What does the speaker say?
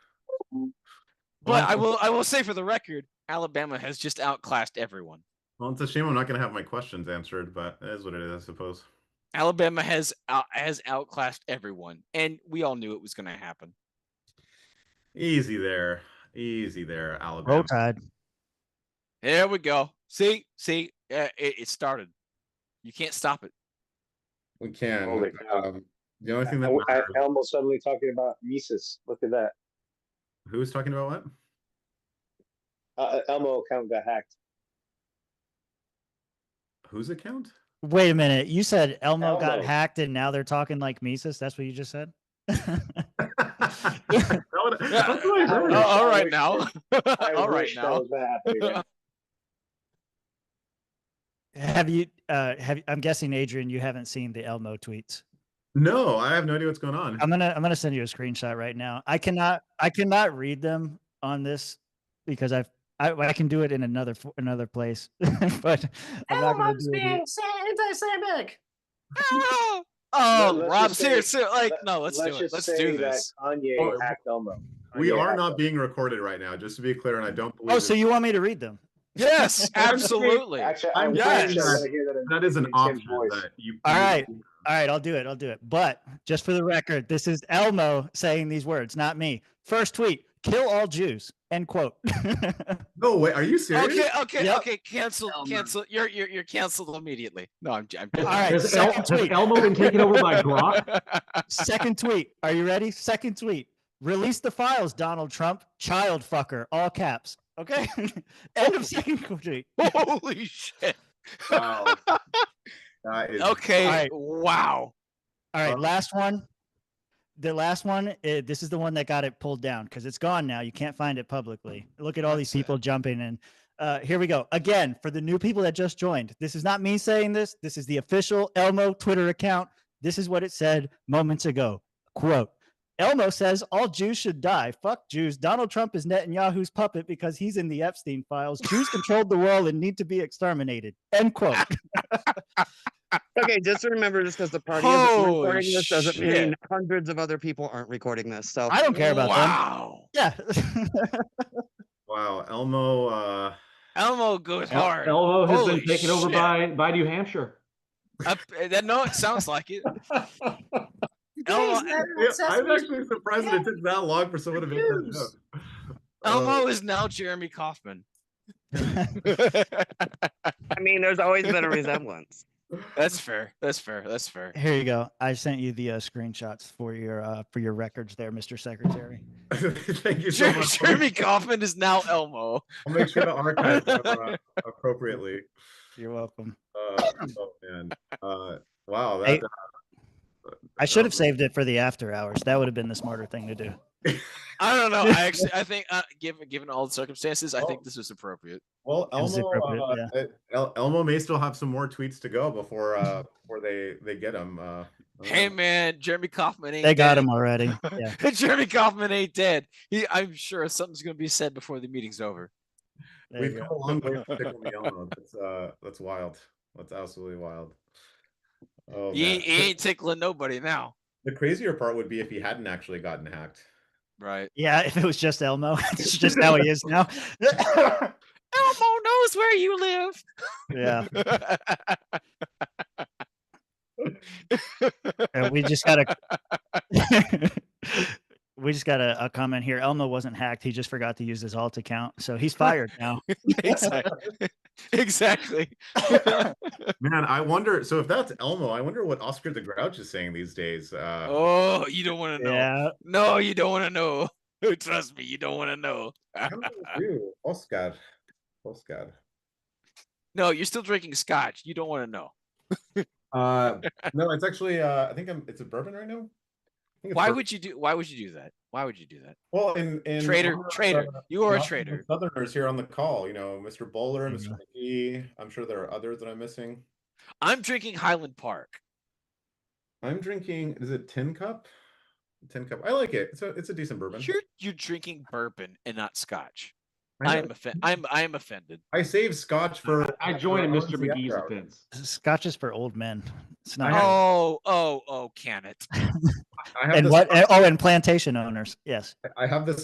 But Well, I will I will say for the record, Alabama has just outclassed everyone. Well, it's a shame I'm not going to have my questions answered, but it is what it is, I suppose. Alabama has out, has outclassed everyone, and we all knew it was going to happen. Easy there, easy there, Alabama. Roll Tide. There we go. See, see, uh, it, it started. You can't stop it. We can. Holy cow. Um, the only thing that Oh, I- matters, Elmo suddenly talking about Mises. Look at that. who's talking about what? Uh, uh, Elmo account got hacked. Whose account? Wait a minute. You said Elmo, got Elmo. hacked and now they're talking like Mises. That's what you just said? That would- that's what I Yeah. heard. Oh, all right wish- now. I all right wish that now. was not happening right now. have you uh have I'm guessing Adrian you haven't seen the Elmo tweets. No, I have no idea what's going on. Um, I'm gonna I'm gonna send you a screenshot right now. I cannot I cannot read them on this because I've I, I can do it in another f- another place, but I'm not gonna do it. here. anti-Semitic. Ah! No, oh, let's Rob, just say- seriously, like let- no, let's, do it. just Let's say do that this. Kanye Well, hacked Elmo. Oh, we Kanye are hacked not Elmo. being recorded right now, just to be clear, and I don't believe Oh, so it- you want me to read them? Yes, absolutely. Actually, I'm I'm yes. pretty sure I wanna hear that in- that is an in Tim's option voice. that you. All right. All right, I'll do it. I'll do it. But just for the record, this is Elmo saying these words, not me. First tweet: "Kill all Jews." End quote. No way. Are you serious? Okay, okay, Yep. okay. Cancel, Um, Elmer. cancel. You're you're you're canceled immediately. No, I'm. j- I'm All right, Has, El- second has tweet. Elmo been taken over by Glock? Second tweet. Are you ready? Second tweet. Release the files, Donald Trump. Child fucker. All caps. Okay. End of second tweet. Holy shit. Wow. That is- Okay. All right. Wow. All Uh, right. Last one. The last one. eh, this is the one that got it pulled down because it's gone now. You can't find it publicly. Look at all these people jumping in. Uh, here we go. Again, for the new people that just joined, this is not me saying this. This is the official Elmo Twitter account. This is what it said moments ago. Quote Elmo says all Jews should die. Fuck Jews. Donald Trump is Netanyahu's puppet because he's in the Epstein files. Jews controlled the world and need to be exterminated. End quote. Okay, just remember this because the party isn't Holy recording this doesn't shit. mean hundreds of other people aren't recording this. So I don't care about them. wow. Yeah. Wow. Elmo. Uh, Elmo goes El- hard. Elmo has Holy been taken over shit. by by New Hampshire. Up, uh, that, no, it sounds like it. Elmo, yeah, I'm actually surprised that it took that long for someone to make that Jews. joke. Elmo Uh, is now Jeremy Kaufman. I mean, there's always been a resemblance. That's fair. That's fair. That's fair. Here you go. I sent you the uh, screenshots for your uh, for your records there, Mr. Secretary. Thank you so Jer- much. Jeremy Kaufman is now Elmo. I'll make sure to archive them, uh, appropriately. You're welcome. Uh, oh man! Uh, wow, that, Hey. I should have Um, saved it for the after hours. That would have been the smarter thing to do. I don't know. I actually, I think, uh, given given all the circumstances, I Oh. think this is appropriate. well, was Elmo, appropriate, uh, El- Elmo may still have some more tweets to go before uh, before they they get him. Uh, I don't Hey know. man, Jeremy Kaufman ain't They got dead. him already. Yeah. Jeremy Kaufman ain't dead. He, I'm sure something's gonna be said before the meeting's over. There we've you come go. a long way from Tickle Me Elmo. That's uh, that's wild. That's absolutely wild. Oh, he, man. ain't- he ain't tickling nobody now, The crazier part would be if he hadn't actually gotten hacked. right? Yeah, if it was just Elmo, it's just how he is now. Elmo knows where you live. yeah, and we just got a we just got a, a comment here. Elmo wasn't hacked. He just forgot to use his alt account, so he's fired now. exactly. exactly. Man, I wonder. So if that's Elmo, I wonder what Oscar the Grouch is saying these days. Uh, Oh, you don't want to know. Yeah, No, you don't want to know. Trust me, you don't want to know. How do you do? Oscar. Oscar. no, you're still drinking scotch. You don't want to know. Uh, no, it's actually. Uh, I think I'm. It's a bourbon right now. I think it's Why bourbon. would you do? Why would you do that? Why would you do that? well in in Traitor, honor of, traitor. uh, You are in a Mm-hmm. honor of the traitor. Southerners here on the call. You know, Mr. Bowler, Mhm. Mr. McGee. I'm sure there are others that I'm missing. I'm drinking Highland Park. I'm drinking. Is it tin cup? Tin cup. I like it. It's a it's a decent bourbon. You're you're drinking bourbon and not scotch. I, I am offended. I'm I am offended. I save scotch for. I join in for Mr. honestly after McGee's hours. offense. Scotch is for old men. It's not. Oh oh oh! Can it? I have and this. what? Oh, and plantation owners. Yes. I have this